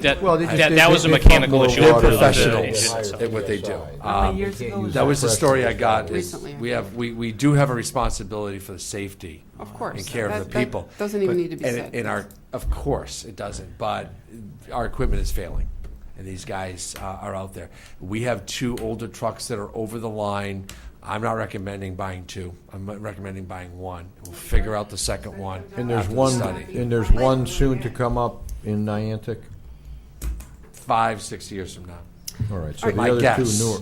That, Well, they just- that, they- that they- was a they mechanical pump issue. more of water the- of the into professionals engine. at what they do. How Um, many years ago was That that? was the story I got, is Recently, I we have, we, we do have a responsibility for the safety. Of course. And care of That- the that people. doesn't even But- need to be and- said. And our, of course, it doesn't, but our equipment is failing, and these guys uh, are out there. We have two older trucks that are over the line. I'm not recommending buying two. I'm recommending buying one. We'll figure out the second one And after there's the one, study. and there's one soon to come up in Niantic? Five, six years from now. All right, so the My other two guess. newer.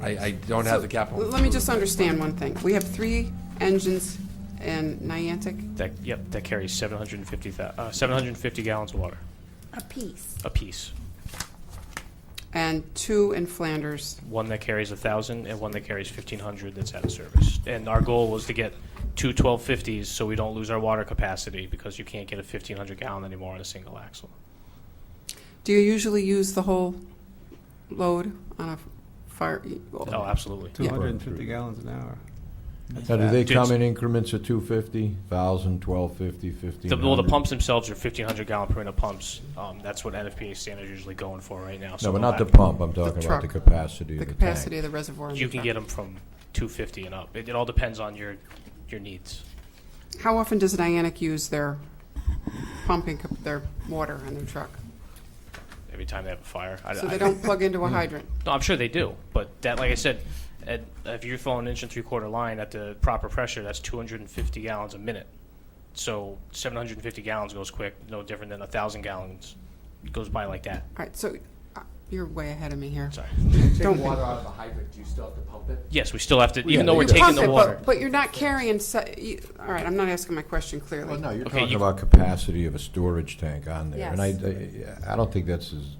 I, I don't have the capital. Let me just understand one thing. We have three engines in Niantic. That, yep, that carries 750, thou- uh, 750 gallons of water A piece. apiece. and two in Flanders. One that carries 1,000 and one that carries 1,500 that's out of service. And our goal was to get two 1250s so we don't lose our water capacity because you can't get a 1,500 gallon anymore on a single axle. Do you usually use the whole load on a fire? e, Oh, absolutely. Two hundred and fifty gallons an hour. Now, do they Dude, come in increments of 250, 1,000, 1,250, The, well, the 1,500? pumps themselves are 1,500 gallon per minute pumps. Um, that's what NFPA standard is usually going for right now. No, So but they'll not the have- pump, I'm talking about truck. the capacity of The the tank. capacity of the reservoir. in You the can truck. get them from 250 and up. It, it all depends on your, your needs. How often does Niantic use their pumping, cap- their water on their truck? Every time they have a fire. I- Mm-hmm. So I- they don't plug into a hydrant? No, I'm sure they do, but that, like I said, at, if you're throwing an inch and three quarter line at the proper pressure, that's 250 gallons a minute. So 750 gallons goes quick, no different than a thousand gallons goes by like that. All right, so uh, you're way ahead of me here. Sorry. Don't be- out of the hydrant, do you still have to pump it? Yes, we still have to, Yeah, even though you we're You taking pump it, the but- water. But you're not carrying, se- you- all right, I'm not asking my question clearly. Well, no, you're Okay, talking you- about capacity of a storage tank on there. And I, I- I don't think that's as,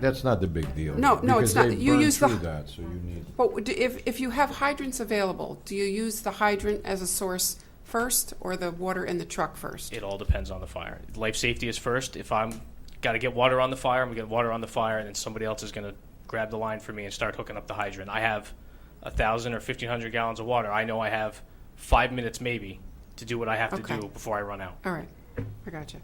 that's not the big deal. No, no, it's not. Because they You burn use the- through that, so you need, But would- if, if you have hydrants available, do you use the hydrant as a source first or the water in the truck first? It all depends on the fire. Life safety is first. If I'm got to get water on the fire, I'm going to get water on the fire, and then somebody else is going to grab the line for me and start hooking up the hydrant. I have a thousand or fifteen hundred gallons of water. I know I have five minutes maybe to do what I have Okay. to do before I run out. All right, I got you.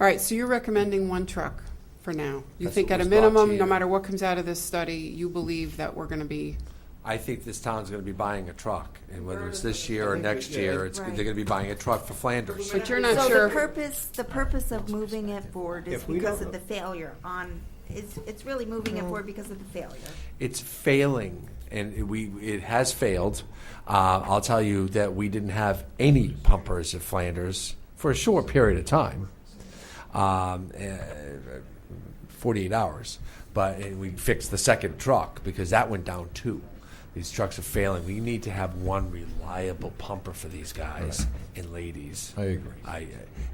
All right, so you're recommending one truck for now. You That's think what at a was brought to minimum, no you. matter what comes out of this study, you believe that we're going to be, I think this town's gonna be buying a truck, and whether it's this year or next year, it's, they're gonna be buying a truck for Flanders. but you're not So the sure. purpose, the purpose of moving it forward is If we because don't- of the failure on, it's, it's really moving it forward because of the failure. It's failing, and it- we, it has failed. Uh, I'll tell you that we didn't have any pumpers at Flanders for a short period of time. Um, eh, 48 hours, but and we fixed the second truck because that went down too. These trucks are failing. We need to have one reliable pumper for these guys and ladies. I agree. I, eh,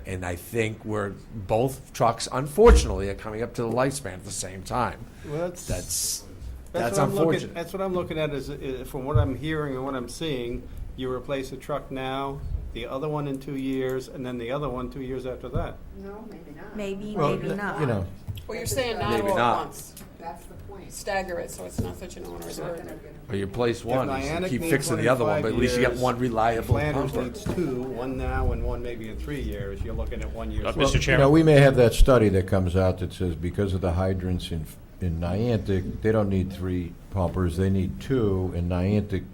and I think we're both trucks, unfortunately, are coming up to the lifespan at the same time. Well, that's- that's That's that's what I'm looking, unfortunate. that's what I'm looking at is, i from what I'm hearing and what I'm seeing, you replace a truck now, the other one in two years, and then the other one two years after that. No, maybe not. Maybe, well, maybe not. you know, Well, you're saying not Maybe all at not. once. That's the point. Stagger it, so it's not such an onerous burden. or you place one, you Niantic keep needs fixing one the in other one, five but at least you got years, one reliable Flanders pumper. needs two, one now and one maybe in three years. You're looking at one year's Uh, worth. Mr. you know, Chairman, we may have that study that comes out that says because of the hydrants in, in Niantic, they don't need three pumpers, they need two, and Niantic,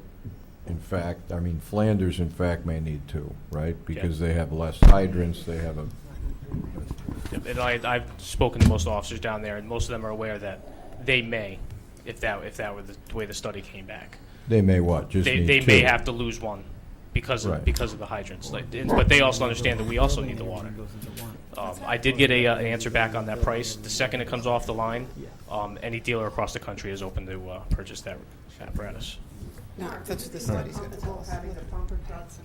in fact, I mean Flanders, in fact, may need two, right? Because they have less hydrants, they have a and I, I've spoken to most officers down there, and most of them are aware that they may, if that if that were the way the study came back, They may what? Just they, need they may two. have to lose one because of Right. because of the hydrants. Like, and- but they also understand that we also need the water. Um, I did get a uh, an answer back on that price. The second it comes off the line, um, any dealer across the country is open to uh, purchase that apparatus. No, that's what the study's going to tell us. Having the pumper trucks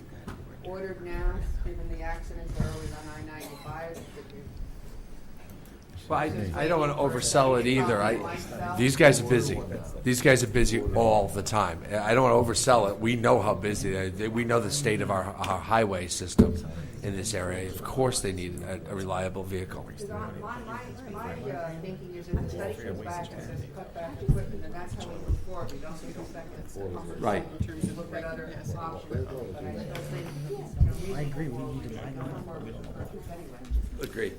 ordered now, given the accidents that are always on I ninety-five. Well, I, I don't want to oversell it either. I, these guys are busy. These guys are busy all the time. I don't want to oversell it. We know how busy they, they we know the state of our, our highway system in this area. Of course, they need a, a reliable vehicle. My, my, my uh, thinking is if the study comes back and says cut back equipment, then that's how we move forward. We don't need to spec that's cumbersome Right. in terms of look at other options. But I still think, you know, reasonable. Agreed.